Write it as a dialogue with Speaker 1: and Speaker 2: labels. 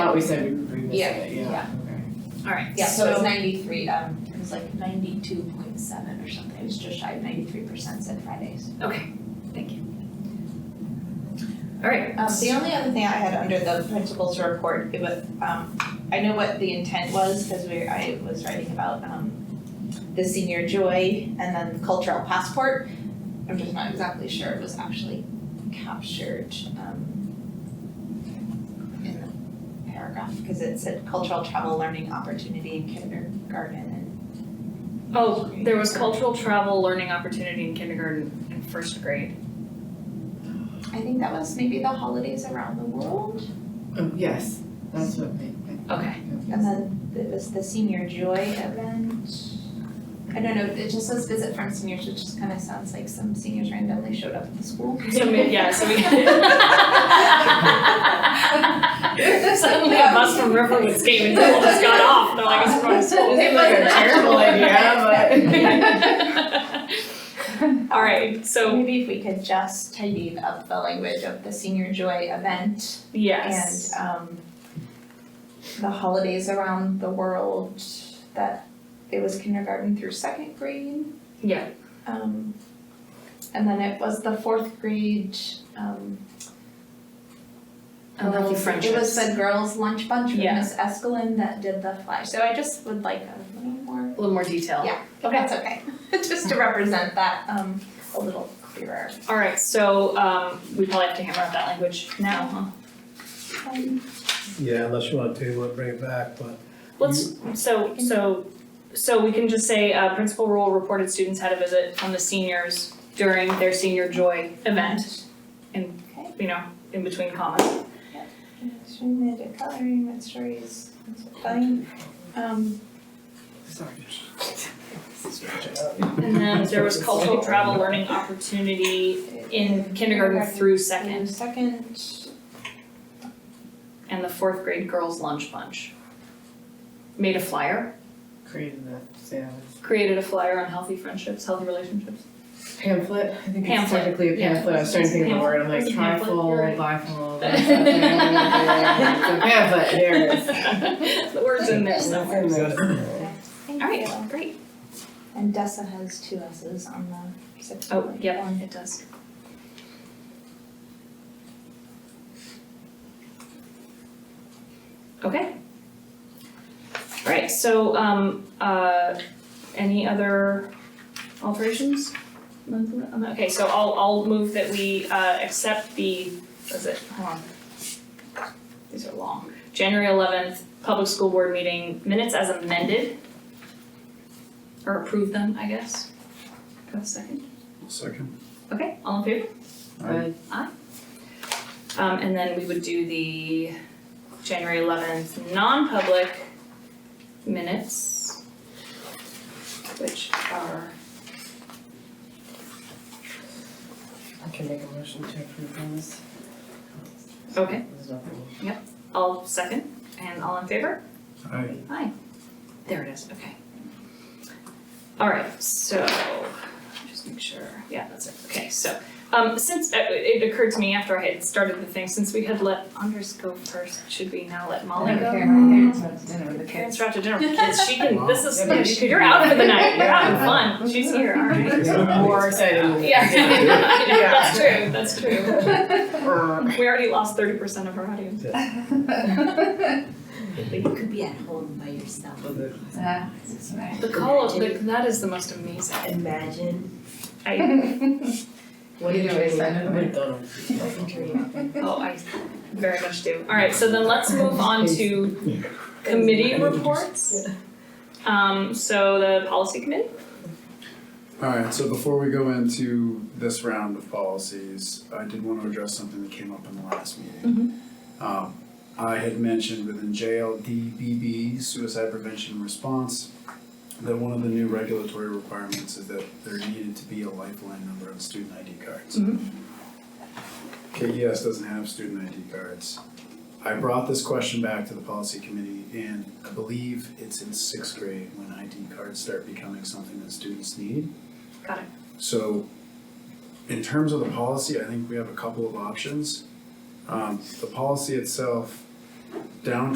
Speaker 1: thought we said we would revisit it, yeah,
Speaker 2: yeah.
Speaker 1: okay.
Speaker 3: Alright,
Speaker 2: Yeah, so it's
Speaker 3: so,
Speaker 2: ninety-three, um, it was like ninety-two point seven or something, it was just shy of ninety-three percent said Fridays.
Speaker 3: alright,
Speaker 2: Um, the only other thing I had under the principals report, it was, um, I know what the intent was, cause we, I was writing about, um, the senior joy and then the cultural passport, I'm just not exactly sure it was actually captured, um, in the paragraph, cause it said cultural travel learning opportunity in kindergarten and.
Speaker 3: oh, there was cultural travel, learning opportunity in kindergarten and first grade.
Speaker 2: I think that was maybe the holidays around the world.
Speaker 1: Um, yes, that's what made, I
Speaker 3: Okay.
Speaker 2: And then it was the senior joy event. I don't know, it just says visit from seniors, which just kind of sounds like some seniors randomly showed up at the school.
Speaker 3: So may- yeah, so we
Speaker 2: There's like,
Speaker 3: Suddenly a bus from Riverwoods came and people just got off, they're like, it's from school.
Speaker 2: It
Speaker 1: Seems like a
Speaker 2: wasn't
Speaker 1: terrible idea,
Speaker 3: Alright, so,
Speaker 2: Maybe if we could just tidy up the language of the senior joy event and
Speaker 3: yes,
Speaker 2: um the holidays around the world that it was kindergarten through second grade.
Speaker 3: yeah,
Speaker 2: Um, and then it was the fourth grade, um.
Speaker 3: Unlucky
Speaker 2: girls- um, It was
Speaker 3: friendships.
Speaker 2: the girls' lunch bunch with
Speaker 3: Yeah.
Speaker 2: Miss Escalin that did the flash, so I just would like a little more,
Speaker 3: a little more detail.
Speaker 2: Yeah.
Speaker 3: Okay.
Speaker 2: that's okay, just to represent that, um, a little clearer.
Speaker 3: Alright, so, um, we probably have to hammer out that language now, huh?
Speaker 2: Um,
Speaker 4: Yeah, unless you wanna table it, bring it back, but
Speaker 3: Let's, so, so, so we can just say, uh, principal rule reported students had a visit from the seniors during their senior joy event. And,
Speaker 2: Okay.
Speaker 3: you know, in between commas.
Speaker 2: Extreme ed, coloring, and stories, that's fine, um,
Speaker 1: sorry.
Speaker 3: And then there was cultural travel learning opportunity in kindergarten through
Speaker 2: and
Speaker 3: second,
Speaker 2: second,
Speaker 3: and the fourth grade girls lunch bunch. Made a flyer,
Speaker 1: Created that sandwich
Speaker 3: created a flyer on healthy friendships, healthy relationships.
Speaker 1: pamphlet, I think it's
Speaker 3: Pamphlet,
Speaker 1: technically a
Speaker 3: yeah.
Speaker 1: pamphlet, I was trying to think of the word, I'm like
Speaker 3: It's a pamphlet,
Speaker 1: trifold,
Speaker 3: you're right.
Speaker 1: bifold, that's something, it's a pamphlet, there it is.
Speaker 3: The word's in there somewhere.
Speaker 2: thank you.
Speaker 3: Alright, great.
Speaker 2: And Dessa has two S's on the zip
Speaker 3: Oh,
Speaker 2: line.
Speaker 3: yep, it does. Okay. Right, so, um, uh, any other alterations? Okay, so I'll, I'll move that we, uh, accept the, what is it, hold on. These are long. January eleventh, public school board meeting minutes as amended. Or approve them, I guess. Do I have a second?
Speaker 5: Second.
Speaker 3: Okay, all in favor?
Speaker 1: Aye.
Speaker 3: Um, and then we would do the January eleventh non-public minutes, which are,
Speaker 1: I can make a motion to approve those.
Speaker 3: Okay.
Speaker 1: There's nothing.
Speaker 3: all second and all in favor?
Speaker 5: Aye.
Speaker 3: There it is, okay. All right, so, just make sure, yeah, that's it, okay, so, um, since, uh, it occurred to me after I had started the thing, since we had let Andres go first, should we now let Molly go? Parents are out to dinner with the kids. She can. This is.
Speaker 1: Wow.
Speaker 3: she- you're out for the night. You're having fun. She's here. All right.
Speaker 1: More exciting.
Speaker 3: Yeah.
Speaker 1: Yeah.
Speaker 3: That's true. That's true. We already lost thirty percent of our audience.
Speaker 6: You could be at home by yourself.
Speaker 3: The call of the, that is the most amazing.
Speaker 6: Imagine,
Speaker 3: I
Speaker 1: What do you do?
Speaker 3: oh I very much do. All right. So then let's move on to committee reports. Um. So the policy committee.
Speaker 5: All right, so before we go into this round of policies, I did want to address something that came up in the last meeting. Um, I had mentioned within JLDBB, suicide prevention and response, that one of the new regulatory requirements is that there needed to be a lifeline number on student ID cards.
Speaker 3: Mhm.
Speaker 5: KES doesn't have student ID cards. I brought this question back to the policy committee and I believe it's in sixth grade when ID cards start becoming something that students need.
Speaker 3: Got it.
Speaker 5: So in terms of the policy, I think we have a couple of options. Um, the policy itself, down